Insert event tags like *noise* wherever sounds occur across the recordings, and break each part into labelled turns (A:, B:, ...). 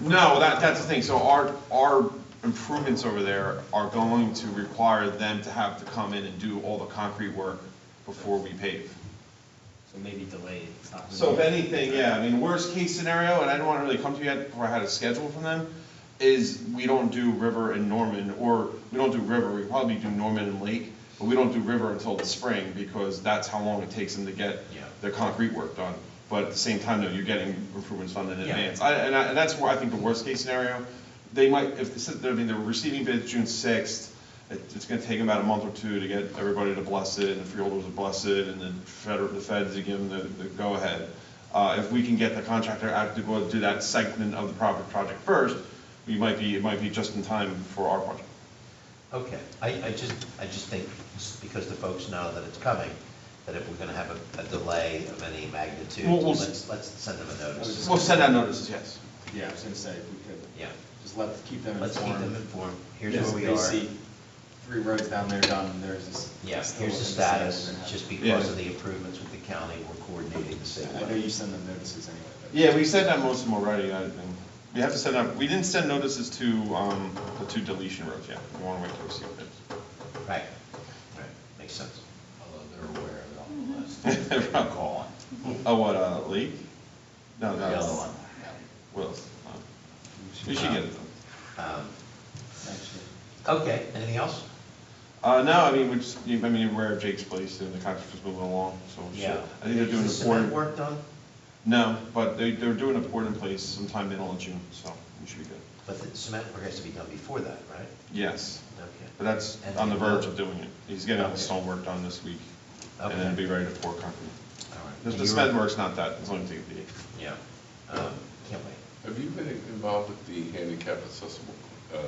A: No, that, that's the thing, so our, our improvements over there are going to require them to have to come in and do all the concrete work before we pave.
B: So maybe delayed, it's not.
A: So if anything, yeah, I mean, worst case scenario, and I don't wanna really come to you yet before I had a schedule from them, is we don't do River and Norman, or we don't do River, we probably do Norman and Lake, but we don't do River until the spring, because that's how long it takes them to get
B: Yeah.
A: their concrete work done. But at the same time, though, you're getting improvements funded in
B: Yeah.
A: advance. I, and I, and that's where I think the worst case scenario, they might, if, this is- I mean, they're receiving bids June sixth, it, it's gonna take them about a month or two to get everybody to bless it, and the freeholders to bless it, and then federal, the feds to give them the, the go-ahead. Uh, if we can get the contractor out to go do that segment of the project, project first, we might be, it might be just in time for our project.
C: Okay, I, I just, I just think, s- because the folks know that it's coming, that if we're gonna have a, a delay of any magnitude,
A: Well, we'll s-
C: let's, let's send them a notice.
A: We'll send out notices, yes.
B: Yeah, I was gonna say, we could.
C: Yeah.
B: Just let, keep them informed.
C: Let's keep them informed, here's
B: Just
C: where we
B: They
C: are,
B: see three roads down there done, there's this.
C: yeah,
B: still
C: here's the
B: looking same, we're
C: status,
B: gonna have-
C: just
A: Yeah.
C: because of the improvements with the county, we're coordinating the city.
B: I know you send them notices anyway. but-
A: Yeah, we sent out most of them already, I think. We have to send out, we didn't send notices to, um, the two deletion roads yet. We wanna wait till we see what it
C: Right, right, makes sense.
D: Although
C: Mm-hmm.
D: they're aware of it on the list,
A: *laughs*
D: they've been
A: Right.
D: calling.
A: is. Oh, what, uh, Lake? No,
D: The
A: no.
D: other one.
A: Wills. We should get it done.
C: Um,
B: Actually,
C: Okay, anything else?
A: Uh, no, I mean, we just, you- I mean, you're aware of Jake's place and the contractor's moving along, so. we should- I think they're doing
C: Is
A: a
C: the cement
A: pouring,
C: work done?
A: no, but they, they're doing a pouring in place sometime middle of June, so we should be good.
C: But the cement work has to be done before that, right?
A: Yes, but
C: Okay.
A: that's
C: And
A: on the
C: the-
A: verge of doing it. He's getting all the
C: Okay.
A: stone work done this week. And
C: Okay.
A: then be ready to pour concrete.
C: All right.
A: The
C: And
A: the
C: you were-
A: cement work's not that, it's only take the,
C: Yeah, um, can't wait.
E: Have you been involved with the handicap accessible uh,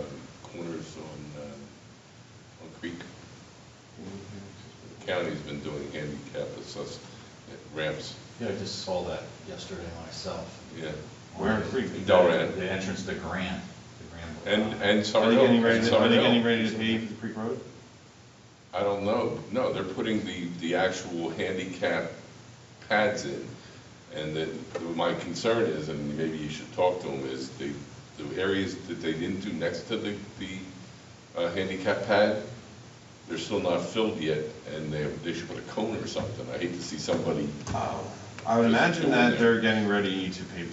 E: corners on, uh, on Creek? The County's been doing handicap access ramps,
D: Yeah, I just saw that yesterday myself.
E: yeah.
A: Where in Creek?
E: In Delran.
D: The entrance to Grand, the Grand.
E: And, and
A: Are they
E: Sawrill.
A: getting ready,
E: and
A: to- are they
E: Sawrill.
A: getting ready to pave the Creek Road?
E: I don't know, no, they're putting the, the actual handicap pads in. And the my concern is, and maybe you should talk to them, is the, the areas that they didn't do next to the, the uh, handicap pad, they're still not filled yet, and they, they should put a cone or something. I hate to see somebody,
A: I would
E: Just
A: imagine
E: doing
A: that
E: it.
A: they're getting ready to pave it,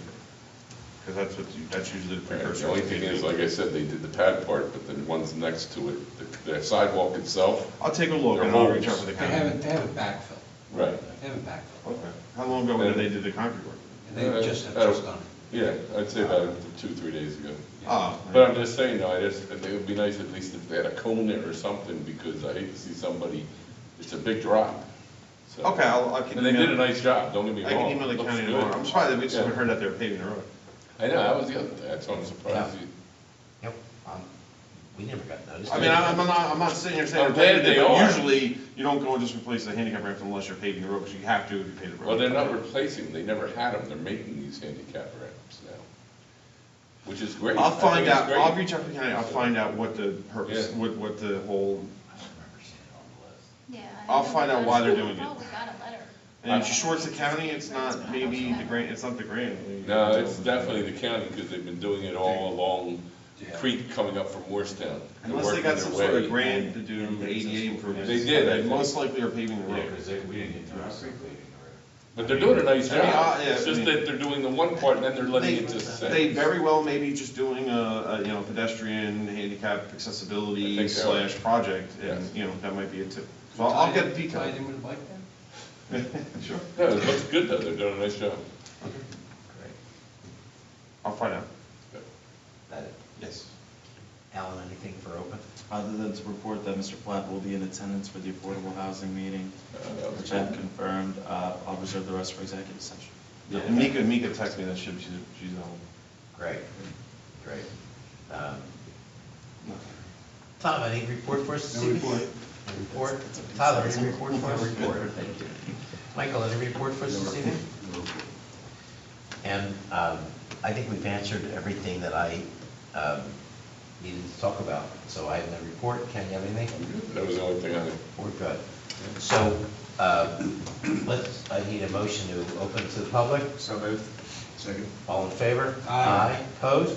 A: because that's what, you- that's usually the precursor.
E: the only
A: to
E: thing
A: paving.
E: is, like I said, they did the pad part, but then ones next to it, the- the sidewalk itself.
A: I'll take a look
E: They're
A: and I'll reach out
E: holes.
A: to the
F: They haven't,
A: county.
F: they haven't backfilled.
E: Right.
F: They haven't backfilled.
A: Okay. How long ago did they do the concrete work?
F: And they've just, have
E: Uh,
F: just done it.
E: Yeah, I'd say about two, three days ago.
A: Oh,
E: But I'm just saying, though, I just, I think it would be nice at least if they had a cone there or something, because I hate to see somebody, it's a big drop. So-
A: okay, I'll, I can.
E: And they
A: email-
E: did a nice job, don't get me
A: I
E: wrong.
A: can email the
E: Looks
A: county
E: good.
A: tomorrow. I'm surprised that we just
E: Yeah.
A: haven't heard that they're paving the road.
E: I know, that was the other, thing. that's why I'm surprised. you-
C: Yep, um, we never got noticed.
A: I mean, I'm I'm not, I'm not sitting here saying.
E: I'm
A: they're
E: glad
A: paving it,
E: they
A: but
E: are.
A: Usually, you don't go and just replace the handicap ramp unless you're paving the road, because you have to if you pave the road.
E: Well, they're not replacing, they never had them, they're making these handicap ramps now, which is great. I
A: I'll
E: think
A: find
E: it's
A: out,
E: great.
A: I'll reach out to the county, I'll find out what the purpose,
E: Yeah.
A: what, what the whole,
D: I don't remember seeing it on the list.
G: Yeah.
A: I'll find out why they're doing it.
G: Oh, we got a letter.
A: and it's Schwartz County, it's not maybe the grant, it's not the grant.
E: No, it's definitely the county, because they've been doing it all along Creek coming up from Morristown. They're
A: Unless they
E: working
A: got
E: their
A: some sort
E: way.
A: of grant to do ADA improvements.
E: They did, I
A: They
E: think.
A: most likely are paving the
D: Yeah,
A: road.
D: because they, we didn't get to see leaving the
E: But they're doing a nice
A: I mean,
E: job,
A: I- yeah,
E: it's
A: I
E: just
A: mean-
E: that they're doing the one part, and then they're letting
A: They-
E: it just sit.
A: They very well may be just doing a, a, you know, pedestrian handicap
E: I
A: accessibility
E: think so.
A: slash project, and,
E: Yes.
A: you know, that might be it too. So I'll I'll get
F: Tied
A: details.
F: in with a bike then?
A: Sure.
E: No, it looks good though, they're doing a nice job.
C: Great.
A: I'll find out.
C: That-
A: Yes.
C: Alan, anything for open?
H: Other than to report that Mr. Platt will be in attendance for the affordable housing meeting,
B: Uh,
H: which I've confirmed, uh, I'll reserve the rest for executive session.
A: Yeah, and Mika, Mika texted me that she, she's, she's at home.
C: Great, great. Um, Tom, any report for us? this
F: No
C: evening?
F: report.
C: No *laughs* Report? Tyler, any report for us? Report, thank you. Michael, any report for us this evening? And um, I think we've answered everything that I um, needed to talk about, so I have no report. Ken, you have anything?
E: That was the only thing I,
C: We're good. So um, let's, I need a motion to open to the public.
B: So moved.
C: All in favor?
F: Aye.
C: Opposed?